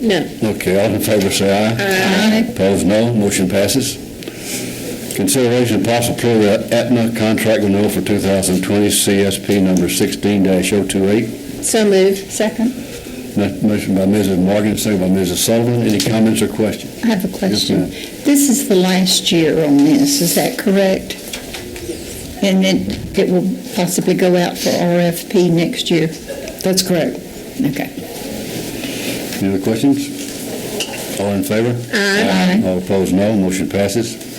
No. Okay, all in favor, say aye. Aye. Opposed, no. Motion passes. Consideration of possible approval of Aetna contract renewal for 2020 CSP number 16-028. So moved. Second, Mo- Motion by Mrs. Morgan, second by Mrs. Sullivan. Any comments or questions? I have a question. ma'am. This is the last year on this, is that correct? And then it will possibly go out for RFP next year? That's correct. Okay. Any other questions? All in favor? Aye. All opposed, no. Motion passes.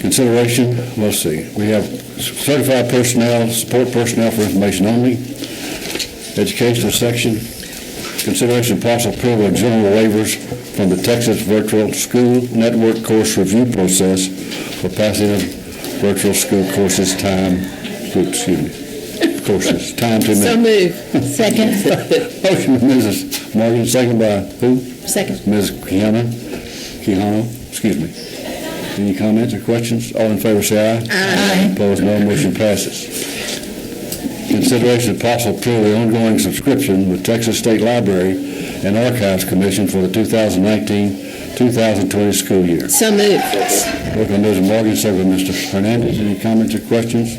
Consideration, let's see, we have certified personnel, support personnel for information only, educational section, consideration of possible approval of general waivers from the Texas Virtual School Network Course Review Process for passing of virtual school courses time, oops, excuse me, courses, time to So minutes. moved. Second, Motion, by Mrs. Morgan, second by who? second. Ms. Kiana, Kihano, excuse me. Any comments or questions? All in favor, say aye. Aye. Opposed, no. Motion passes. Consideration of possible approval of the ongoing subscription with Texas State Library and Archives Commission for the 2019-2020 school year. So moved. Motion by Mrs. Morgan, second by Mr. Hernandez. Any comments or questions?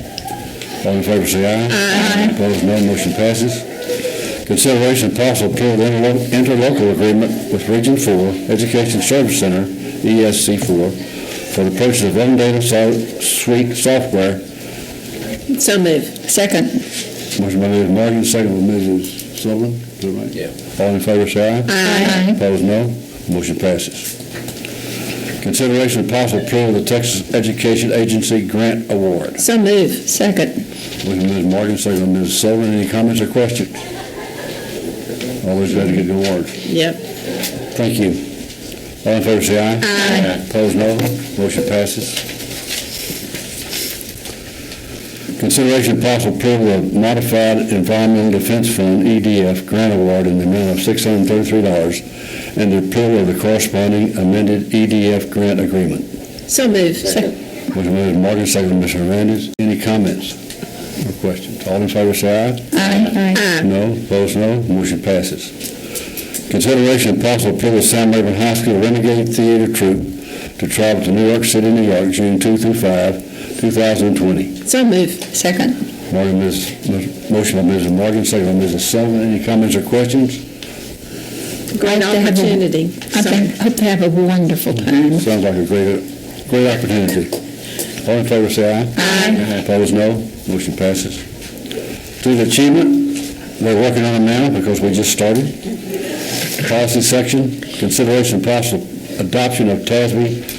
All in favor, say aye. Aye. Opposed, no. Motion passes. Consideration and possible approval of interlo- interlocal agreement with Region Four Education Service Center, ESC four, for the purchase of Data Suite software. So moved. Second, Motion by Mrs. Morgan, second by Mrs. Sullivan. Is that right? Yeah. All in favor, say aye. Aye. Opposed, no. Motion passes. Consideration and possible approval of the Texas Education Agency Grant Award. So moved. second, Motion by Ms. Morgan, second by Ms. Sullivan. Any comments or questions? Always glad to get the award. Yep. Thank you. All in favor, say aye. Aye. Opposed, no. Motion passes. Consideration and possible approval of Modified Environmental Defense Fund, EDF, grant award in the amount of $633 and the approval of the corresponding amended EDF grant agreement. So moved. Motion by Ms. Morgan, second by Ms. Hernandez. Any comments or questions? All in favor, say aye. aye, Aye. No, opposed, no. Motion passes. Consideration and possible approval of Sam Rayburn High School Renegade Theater Troupe to travel to New York City, New York, June 2 through 5, 2020. So moved. second, Morgan, Ms., motion by Mrs. Morgan, second by Mrs. Sullivan. Any comments or questions? Great I'd like to have a- opportunity. I So- think, hope to have a wonderful time. Sounds like a great, great opportunity. All in favor, say aye. Aye. Opposed, no. Motion passes. Student achievement, we're working on it now because we just started. Policy section, consideration and possible adoption of TASB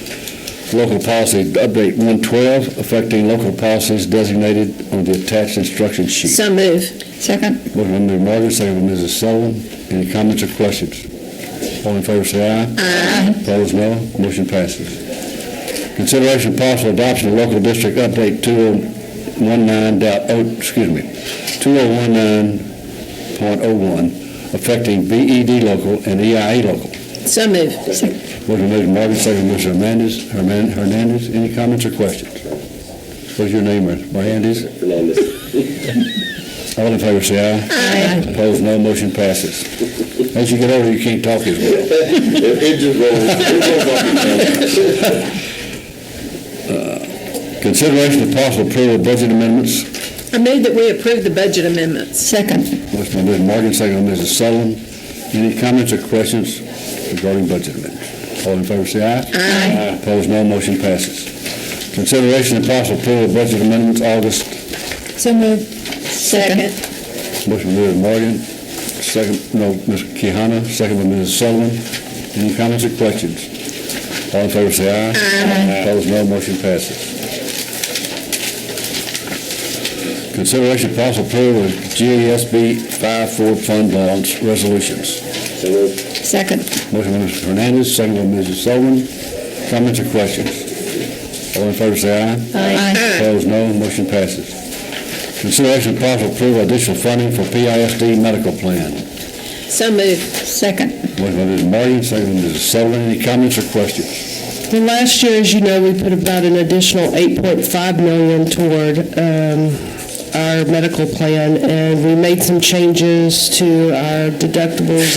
local policy update 112 affecting local policies designated on the attached instruction sheet. So moved. Second, Motion by Mrs. Morgan, second by Mrs. Sullivan. Any comments or questions? All in favor, say aye. Aye. Opposed, no. Motion passes. Consideration of possible adoption of local district update 2019 dot, oh, excuse me, 2019.01 affecting BED local and EIA local. So moved. Motion by Mrs. Morgan, second by Mr. Hernandez. Hernan- Hernandez, any comments or questions? What's your name, Hernandez? Fernandez. All in favor, say aye. aye, Opposed, no, motion passes. As you get older, you can't talk as well. It it just rolls, it rolls off the tongue. Consideration of possible approval of budget amendments. I move that we approve the budget amendments. second, Motion by Mrs. Morgan, second by Mrs. Sullivan. Any comments or questions regarding budget amendments? All in favor, say aye. Aye. Opposed, no, motion passes. Consideration of possible approval of budget amendments, August. so moved, second, Motion by Mrs. Morgan, second, no, Ms. Kehana, second by Mrs. Sullivan. Any comments or questions? All in favor, say aye. Aye. Opposed, no, motion passes. Consideration of possible approval of GASB 5-4 fund balance resolutions. So moved. second, Motion by Mr. Hernandez, second by Mrs. Sullivan. Comments or questions? All in favor, say aye. aye, Opposed, no. Motion passes. Consideration and possible approval of additional funding for PISD medical plan. So moved. second, Motion by Mrs. Morgan, second by Mrs. Sullivan. Any comments or questions? Well, last year, as you know, we put about an additional 8.5 million toward um, our medical plan, and we made some changes to our deductibles